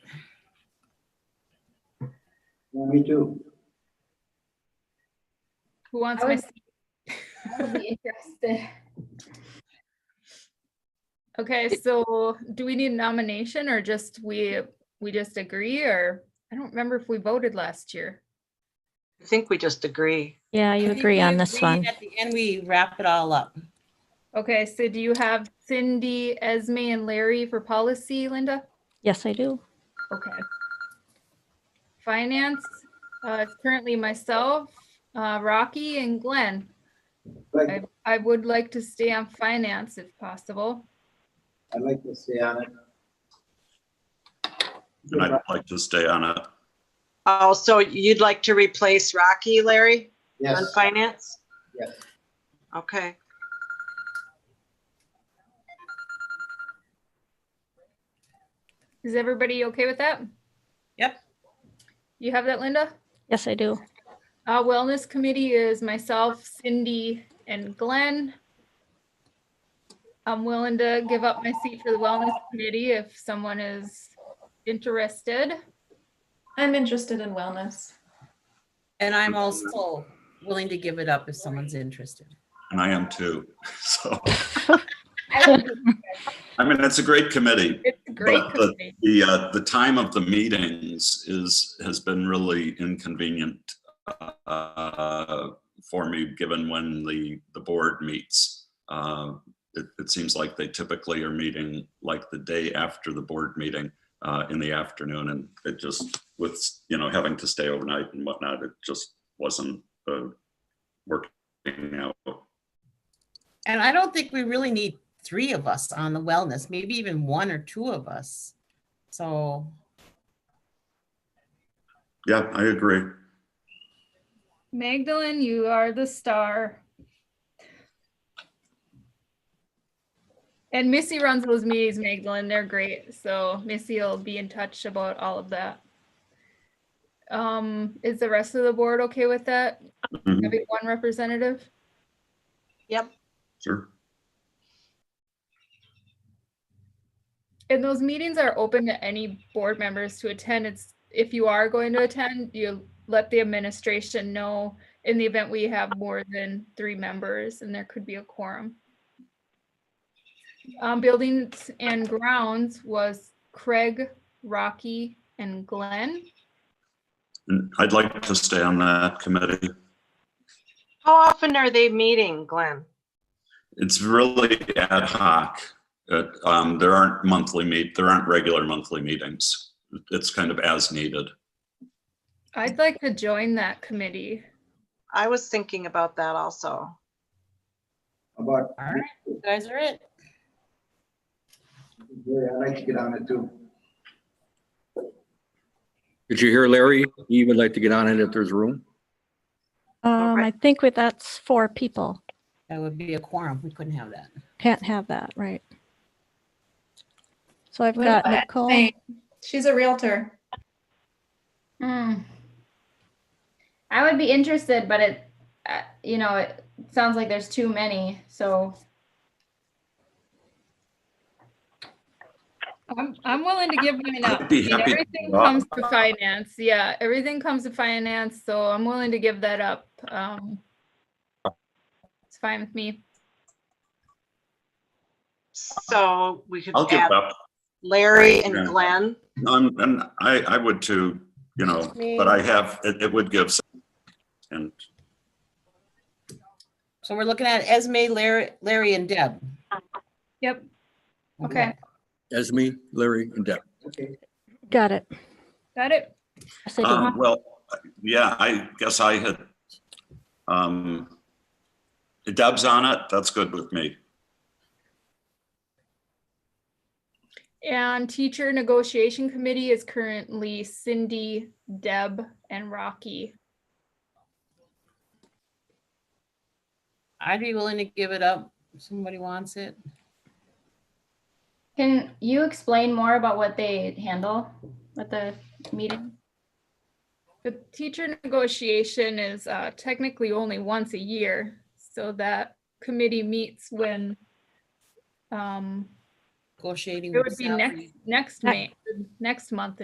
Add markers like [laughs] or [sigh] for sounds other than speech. Me too. Who wants I my, would- I would be interested. okay, so do we need nomination or just we, we just agree or? I don't remember if we voted last year. I think we just agree. Yeah, you I think agree we on this agree, one. At the end, we wrap it all up. Okay, so do you have Cindy, Esme and Larry for policy, Linda? Yes, I do. Okay. Finance, uh, it's currently myself, uh, Rocky and Glenn. Like, I would like to stay on finance if possible. I'd like to stay on it. And I'd like to stay on it. Oh, so you'd like to replace Rocky, Larry, on Yes, finance? Yes. Okay. Is everybody okay with that? Yep. You have that, Linda? Yes, I do. Uh, wellness committee is myself, Cindy and Glenn. I'm willing to give up my seat for the wellness committee if someone is interested. I'm interested in wellness. And I'm also willing to give it up if someone's interested. And I am too. [laughs] So, I would be I mean, it's a great committee. It's a great But the- committee. The, uh, the time of the meetings is, has been really inconvenient uh, for me, given when the, the board meets. Uh, It, it seems like they typically are meeting like the day after the board meeting uh, in the afternoon. And it just with, you know, having to stay overnight and whatnot, it just wasn't uh, working out. And I don't think we really need three of us on the wellness, maybe even one or two of us. So, Yeah, I agree. Magdalene, you are the star. And Missy runs those meetings, Magdalene. They're great. So Missy will be in touch about all of that. Um, is the rest of the board okay with that? Mhm. Having one representative? Sure. And those meetings are open to any board members to attend. It's, if you are going to attend, you let the administration know in the event we have more than three members and there could be a quorum. Um, buildings and grounds was Craig, Rocky, and Glenn. And I'd like to stay on that committee. How often are they meeting, Glenn? It's really ad hoc. It, um, there aren't monthly meet, there aren't regular monthly meetings. It's kind of as needed. I'd like to join that committee. I was thinking about that also. about, all right, you guys are it. yeah, I'd like to get on it too. Did you hear Larry? He would like to get on it if there's room. Um, I right. think we, that's four people. That would be a quorum. We couldn't have that. Can't have that, right? So I've What got about Nicole. Hey, She's a realtor. Hmm. I would be interested, but it, uh, you know, it sounds like there's too many, so. I'm, I'm willing to give mine up. I'd be I mean, happy to Everything give up. comes to finance, yeah, everything comes to finance, so I'm willing to give that up. Um It's fine with me. So we could I'll give add up. Larry and Yeah. Glenn. Um, and I, I would too, you know, but I have, it, it would give. some- And So we're looking at Esme, Larry, Larry and Deb. Yep, okay, Esme, Larry, and Deb. Okay, Got it. got it. Yes, I do. Um, Well, yeah, I guess I had, um, Deb's on it. That's good with me. And teacher negotiation committee is currently Cindy, Deb, and Rocky. I'd be willing to give it up if somebody wants it. Can you explain more about what they handle at the meeting? The teacher negotiation is uh, technically only once a year, so that committee meets when um, Negotiating. it with would be salary. next, next May, next month